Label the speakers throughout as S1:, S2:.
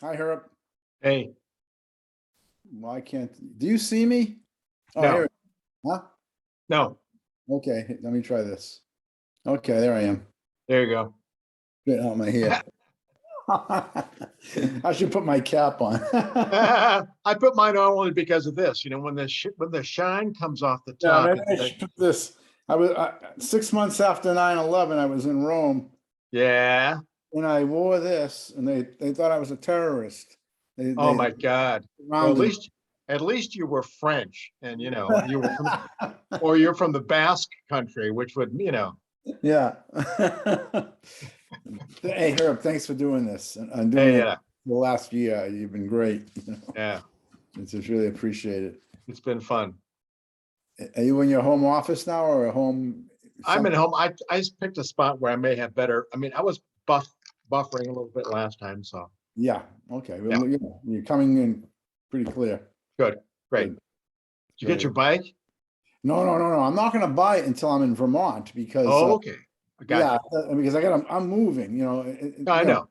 S1: Hi, Herb.
S2: Hey,
S1: Why can't, do you see me? Oh,
S2: No.
S1: here- Huh?
S2: no,
S1: Okay, let me try this. Okay, there I am.
S2: there you go.
S1: Get out my hair. I should put my cap on.
S2: I put mine on only because of this, you know, when the sh when the shine comes off the
S1: Yeah,
S2: top.
S1: maybe I
S2: it's like-
S1: should put This, I was, I- six months after 9/11, I was in Rome
S2: Yeah,
S1: and I wore this and they, they thought I was a terrorist. They-
S2: oh
S1: they
S2: my God. Well,
S1: surrounded
S2: At
S1: me.
S2: least, at least you were French and, you know, you were, from- or you're from the Basque country, which would, you know,
S1: Yeah. Hey, Herb, thanks for doing this and- and doing it
S2: yeah,
S1: the last year. You've been great. you know.
S2: yeah,
S1: It's just really appreciated.
S2: it's been fun.
S1: Are you in your home office now or a home?
S2: I'm at home. I, I just picked a spot where I may have better, I mean, I was buff, buffering a little bit last time, so,
S1: Yeah, okay. Well, you know, You're coming in pretty clear.
S2: great. Did you get your bike?
S1: No, no, no, no. I'm not gonna buy it until I'm in Vermont because,
S2: Oh,
S1: uh,
S2: okay. I got
S1: yeah, uh, because I got, I'm moving, you know. it- it-
S2: you. I
S1: you know,
S2: know.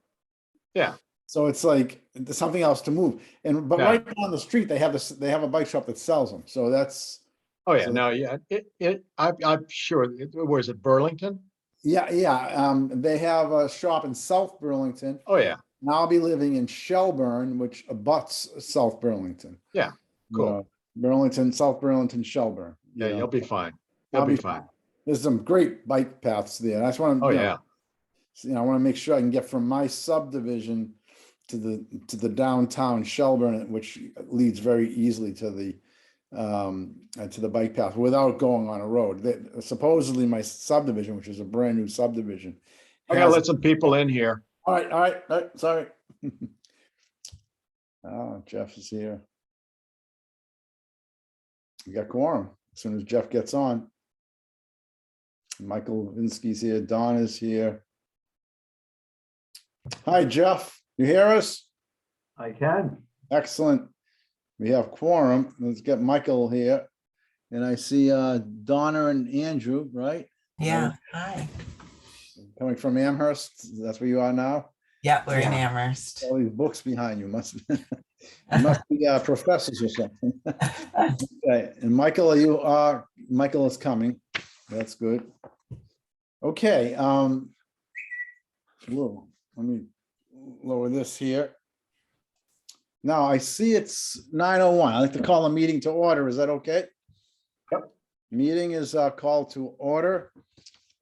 S1: So it's like, there's something else to move. And, but
S2: Yeah.
S1: right down the street, they have this, they have a bike shop that sells them. So that's,
S2: Oh, yeah,
S1: So-
S2: no, yeah, it, it, I, I'm sure, it was it Burlington?
S1: yeah, yeah. Um, they have a shop in South Burlington.
S2: Oh, yeah,
S1: And I'll be living in Shelburne, which abuts South Burlington.
S2: Yeah,
S1: You
S2: cool.
S1: know, Burlington, South Burlington, Shelburne. you
S2: yeah,
S1: know.
S2: you'll be fine.
S1: I'll
S2: You'll be
S1: be
S2: fine.
S1: There's some great bike paths there. I just want to.
S2: Oh, yeah,
S1: You know, I want to make sure I can get from my subdivision to the, to the downtown Shelburne, which leads very easily to the, um, uh, to the bike path without going on a road. That- Supposedly my subdivision, which is a brand new subdivision.
S2: I gotta
S1: has-
S2: let some people in here.
S1: all right, all right, all right, sorry. Ah, Jeff is here. We got quorum as soon as Jeff gets on. Michael Vinsky's here, Don is here. Hi, Jeff, you hear us?
S3: I can.
S1: Excellent. We have quorum. Let's get Michael here. And I see uh, Donna and Andrew, right?
S4: Yeah, Oh, hi.
S1: Coming from Amherst, that's where you are now?
S4: Yeah, we're in Amherst.
S1: All these books behind you must, you must be uh, professors or something. Okay, and Michael, you are, Michael is coming. That's good. Okay, um, whoa, let me lower this here. Now, I see it's nine oh one. I like to call a meeting to order. Is that okay?
S3: Yep.
S1: Meeting is uh, called to order.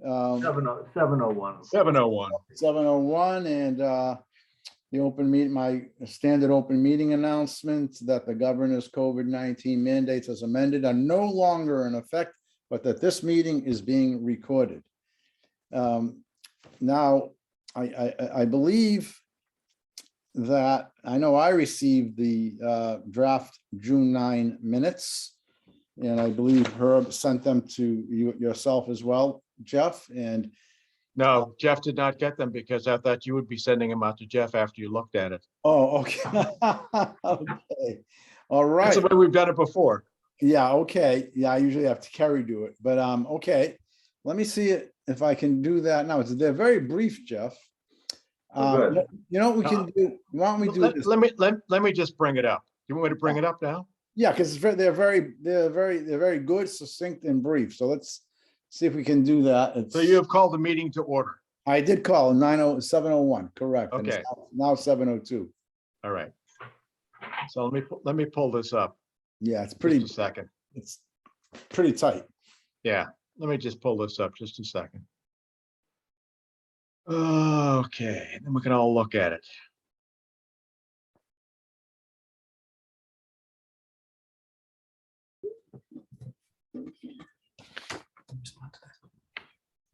S1: Um,
S3: Seven oh, seven oh one.
S2: Seven oh one.
S1: seven oh one and uh, the open meet, my standard open meeting announcement that the governor's COVID nineteen mandates as amended are no longer in effect, but that this meeting is being recorded. Um, Now, I, I, I- I believe that, I know I received the uh, draft June nine minutes. And I believe Herb sent them to you yourself as well, Jeff, and
S2: No, Jeff did not get them because I thought you would be sending them out to Jeff after you looked at it.
S1: Oh, okay. Okay. All right.
S2: That's the way we've done it before.
S1: Yeah, okay. Yeah, I usually have to carry do it, but um, okay. Let me see it if I can do that now. It's, they're very brief, Jeff.
S3: Oh,
S1: Um,
S3: good.
S1: you know, what we
S2: Uh,
S1: can do, why don't we do
S2: Let
S1: this?
S2: let me, let, let me just bring it up. You want me to bring it up now?
S1: Yeah, because they're very, they're very, they're very good, succinct and brief. So let's see if we can do that.
S2: So
S1: It's-
S2: you have called the meeting to order.
S1: I did call nine oh, seven oh one, correct. and it's
S2: Okay.
S1: Now now seven oh two.
S2: All right. So let me, pu- let me pull this up.
S1: Yeah, it's
S2: Just
S1: pretty,
S2: a second.
S1: it's pretty tight.
S2: Yeah, let me just pull this up just a second. Okay, then we can all look at it.